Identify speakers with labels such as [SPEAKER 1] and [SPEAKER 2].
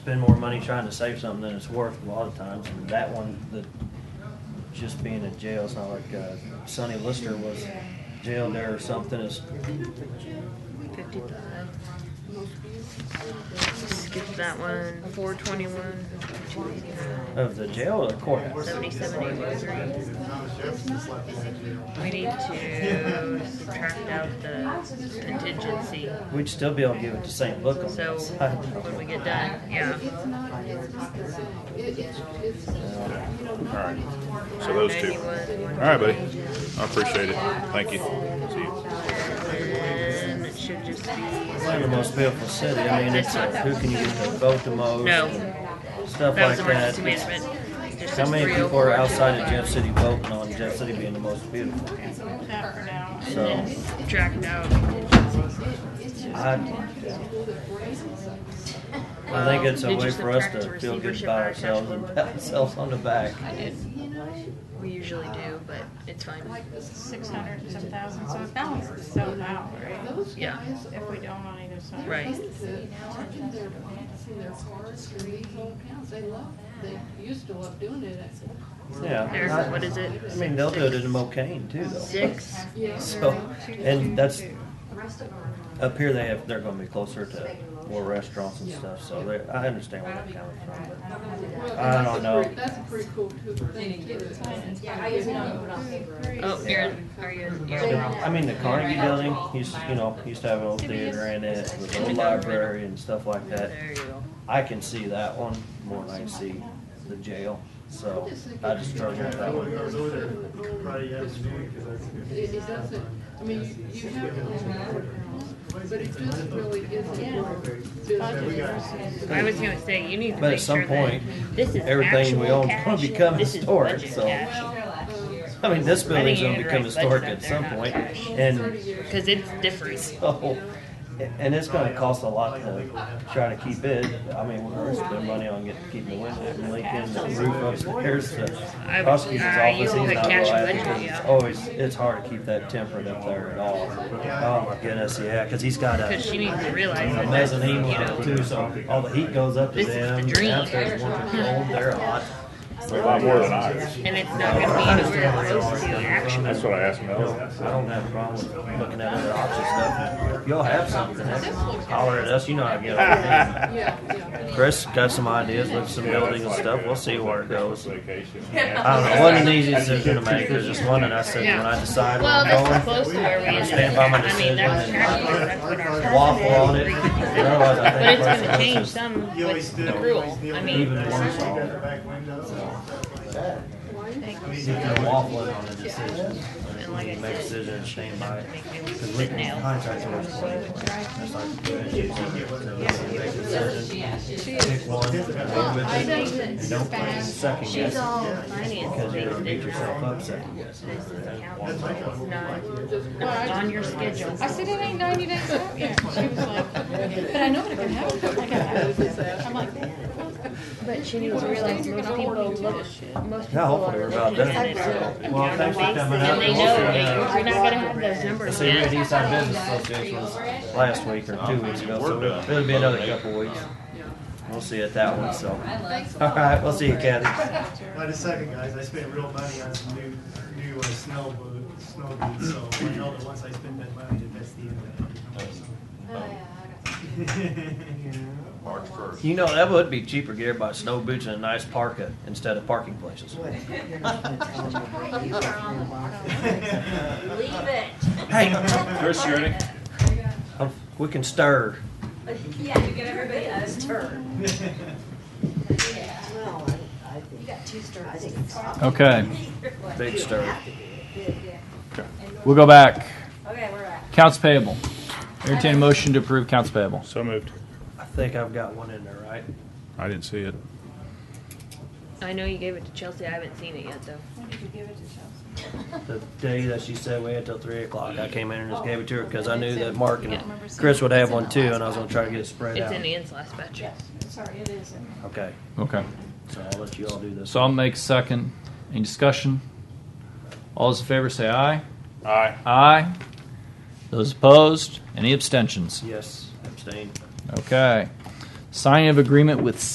[SPEAKER 1] spend more money trying to save something than it's worth a lot of times. And that one, the just being in jail, it's not like uh, Sonny Lister was jailed there or something. It's
[SPEAKER 2] Fifty-five. Skip that one. Four twenty-one.
[SPEAKER 1] of the jail or the courthouse.
[SPEAKER 2] Seventy-seven eighty-three. We need to subtract out the contingency.
[SPEAKER 1] We'd still be able to give it to St. Book on
[SPEAKER 2] So
[SPEAKER 1] that side.
[SPEAKER 2] when we get done, yeah.
[SPEAKER 1] Uh,
[SPEAKER 3] Alright, so those two.
[SPEAKER 2] 91,
[SPEAKER 3] Alright, buddy, I appreciate it, thank you, see you.
[SPEAKER 2] And it should just be,
[SPEAKER 1] One of the most beautiful city. I mean, it's like, who can use the vote the most?
[SPEAKER 2] no,
[SPEAKER 1] Stuff
[SPEAKER 2] that was
[SPEAKER 1] like
[SPEAKER 2] emergency
[SPEAKER 1] that.
[SPEAKER 2] management. Just
[SPEAKER 1] How
[SPEAKER 2] as
[SPEAKER 1] many people
[SPEAKER 2] 304.
[SPEAKER 1] are outside of Jeff City voting on Jeff City being the most beautiful? So,
[SPEAKER 2] Subtract out.
[SPEAKER 1] I, I think it's a
[SPEAKER 2] Did you
[SPEAKER 1] way for us
[SPEAKER 2] subtract
[SPEAKER 1] to
[SPEAKER 2] the
[SPEAKER 1] feel good
[SPEAKER 2] receivership
[SPEAKER 1] by
[SPEAKER 2] by
[SPEAKER 1] ourselves and
[SPEAKER 2] cash
[SPEAKER 1] pat ourselves on the back.
[SPEAKER 2] We usually do, but it's fine.
[SPEAKER 4] six hundred and some thousand, so it balances itself out, right?
[SPEAKER 2] Yeah,
[SPEAKER 4] If we don't on either side.
[SPEAKER 2] right.
[SPEAKER 5] They used to love doing it.
[SPEAKER 2] There's,
[SPEAKER 1] Yeah.
[SPEAKER 2] what is it?
[SPEAKER 1] I mean, they'll do it in Mocaine too, though.
[SPEAKER 2] Six.
[SPEAKER 1] So, and that's, up here they have, they're gonna be closer to more restaurants and stuff, so they, I understand where they're coming from, but. I don't know.
[SPEAKER 5] That's a pretty cool too- thing to do.
[SPEAKER 2] Oh, you're, are you,
[SPEAKER 1] The-
[SPEAKER 2] you're
[SPEAKER 1] I mean, the Carnegie building, used, you know, used to have an old theater in it, with an old library and stuff like that.
[SPEAKER 2] There you go.
[SPEAKER 1] I can see that one more than I can see the jail, so I just struggle with that one.
[SPEAKER 5] It it doesn't, I mean, you- you have to remember, but it just really isn't. business.
[SPEAKER 2] I was gonna say, you need to
[SPEAKER 1] But at
[SPEAKER 2] make
[SPEAKER 1] some
[SPEAKER 2] sure that
[SPEAKER 1] point,
[SPEAKER 2] this is
[SPEAKER 1] everything we
[SPEAKER 2] actual
[SPEAKER 1] own's gonna
[SPEAKER 2] cash,
[SPEAKER 1] become
[SPEAKER 2] this is
[SPEAKER 1] historic,
[SPEAKER 2] budget
[SPEAKER 1] so-
[SPEAKER 2] cash.
[SPEAKER 1] I mean, this building's
[SPEAKER 2] you
[SPEAKER 1] gonna
[SPEAKER 2] need to
[SPEAKER 1] become
[SPEAKER 2] write
[SPEAKER 1] historic at
[SPEAKER 2] budgets
[SPEAKER 1] some
[SPEAKER 2] up there,
[SPEAKER 1] point,
[SPEAKER 2] not cash.
[SPEAKER 1] and,
[SPEAKER 2] Cause it's different.
[SPEAKER 1] so, and it's gonna cost a lot to try to keep it. I mean, we're gonna spend money on getting, keeping the windows and leaking, the roof upstairs, the
[SPEAKER 2] I-
[SPEAKER 1] prosecutor's
[SPEAKER 2] uh, you
[SPEAKER 1] office, he's
[SPEAKER 2] put
[SPEAKER 1] not
[SPEAKER 2] cash
[SPEAKER 1] reliable,
[SPEAKER 2] budget,
[SPEAKER 1] because it's
[SPEAKER 2] yeah.
[SPEAKER 1] always, it's hard to keep that temperate up there at all. Oh my goodness, yeah, cause he's got a.
[SPEAKER 2] Cause you need to realize
[SPEAKER 1] A
[SPEAKER 2] that that's, you
[SPEAKER 1] mezzanine level
[SPEAKER 2] know,
[SPEAKER 1] too, so all the heat goes up to
[SPEAKER 2] This is
[SPEAKER 1] them.
[SPEAKER 2] the dream.
[SPEAKER 1] Downstairs more controlled, they're hot.
[SPEAKER 3] A lot more than ours.
[SPEAKER 2] and it's not gonna be where it's supposed to actually.
[SPEAKER 3] That's what I asked
[SPEAKER 1] I
[SPEAKER 3] Mel.
[SPEAKER 1] don't have a problem with looking at other options stuff. Y'all have something, holler at us, you know how to get on.
[SPEAKER 5] Yeah, yeah.
[SPEAKER 1] Chris got some ideas with some building and stuff, we'll see where it goes.
[SPEAKER 3] Vacation.
[SPEAKER 1] I don't know, it wasn't the easiest decision to make, there's just one that I said, when I decide where
[SPEAKER 2] Well, that's
[SPEAKER 1] I'm
[SPEAKER 2] close to
[SPEAKER 1] going,
[SPEAKER 2] where we
[SPEAKER 1] I'm
[SPEAKER 2] ended
[SPEAKER 1] standing by
[SPEAKER 2] up.
[SPEAKER 1] my
[SPEAKER 2] I mean,
[SPEAKER 1] decision
[SPEAKER 2] that's tracking,
[SPEAKER 1] and
[SPEAKER 2] that's what
[SPEAKER 1] not
[SPEAKER 2] our.
[SPEAKER 1] waffle on it, otherwise I
[SPEAKER 2] But
[SPEAKER 1] think.
[SPEAKER 2] it's gonna
[SPEAKER 1] Chris
[SPEAKER 2] change
[SPEAKER 1] is just
[SPEAKER 2] some
[SPEAKER 6] You always
[SPEAKER 2] with
[SPEAKER 6] did.
[SPEAKER 2] accrual, I mean.
[SPEAKER 1] Even worse off.
[SPEAKER 6] Back window.
[SPEAKER 1] waffling on the decision.
[SPEAKER 2] And like I
[SPEAKER 1] Make a
[SPEAKER 2] said,
[SPEAKER 1] decision and stand by it.
[SPEAKER 2] make it
[SPEAKER 1] Because
[SPEAKER 2] sit now.
[SPEAKER 1] Contracts are worth money. That's like good. Make a decision, pick one, live with it, and don't play second
[SPEAKER 2] She's
[SPEAKER 1] guess.
[SPEAKER 2] all finance
[SPEAKER 1] Because you're gonna get
[SPEAKER 2] things
[SPEAKER 1] yourself
[SPEAKER 2] now.
[SPEAKER 1] up second guessing.
[SPEAKER 2] This is accounting, it's not, it's on your schedule.
[SPEAKER 4] I said, it ain't ninety days out yet. She was like, but I know that it can happen. Like, I- I'm like,
[SPEAKER 2] But she needs to realize most people look, most people
[SPEAKER 1] Yeah, hopefully
[SPEAKER 2] are
[SPEAKER 1] we're about
[SPEAKER 2] looking
[SPEAKER 1] done.
[SPEAKER 2] at it.
[SPEAKER 1] Well, thanks for coming
[SPEAKER 2] And
[SPEAKER 1] out.
[SPEAKER 2] they know that you're not gonna have those numbers
[SPEAKER 1] See, we had
[SPEAKER 2] yet.
[SPEAKER 1] Eastside Business Association was last week or two weeks ago, so it'll be another couple weeks. We'll see at that one, so. All right, we'll see you, Kathy.
[SPEAKER 6] Wait a second, guys, I spent real money on some new, new uh, snow boots, snow boots, so I know that once I spend that money, that that's the end of
[SPEAKER 3] March first.
[SPEAKER 1] You know, that would be cheaper, gear by snow boots and a nice parka instead of parking places.
[SPEAKER 6] it.
[SPEAKER 7] Leave it.
[SPEAKER 1] Hey,
[SPEAKER 3] Chris, you're in it?
[SPEAKER 1] um, we can stir.
[SPEAKER 7] Yeah, you get everybody else's turn. You got two turns.
[SPEAKER 8] Okay,
[SPEAKER 1] Big stir.
[SPEAKER 8] we'll go back.
[SPEAKER 7] Okay, we're at.
[SPEAKER 8] Counts payable. Entertain a motion to approve counts payable.
[SPEAKER 3] So moved.
[SPEAKER 1] I think I've got one in there, right?
[SPEAKER 3] I didn't see it.
[SPEAKER 2] I know you gave it to Chelsea, I haven't seen it yet though.
[SPEAKER 4] when did you give it to Chelsea?
[SPEAKER 1] The day that she said we had till three o'clock, I came in and just gave it to her because I knew that Mark and Chris would have one too, and I was gonna try to get it spread
[SPEAKER 2] It's in
[SPEAKER 1] out.
[SPEAKER 2] Ann's last batch.
[SPEAKER 4] Sorry, it is. in there.
[SPEAKER 1] Okay,
[SPEAKER 8] Okay.
[SPEAKER 1] so I'll let you all do this.
[SPEAKER 8] So I'll make second. Any discussion? All those in favor say aye.
[SPEAKER 3] Aye.
[SPEAKER 8] Aye. Those opposed? Any abstentions?
[SPEAKER 1] Yes, abstain.
[SPEAKER 8] Okay. Signing of agreement with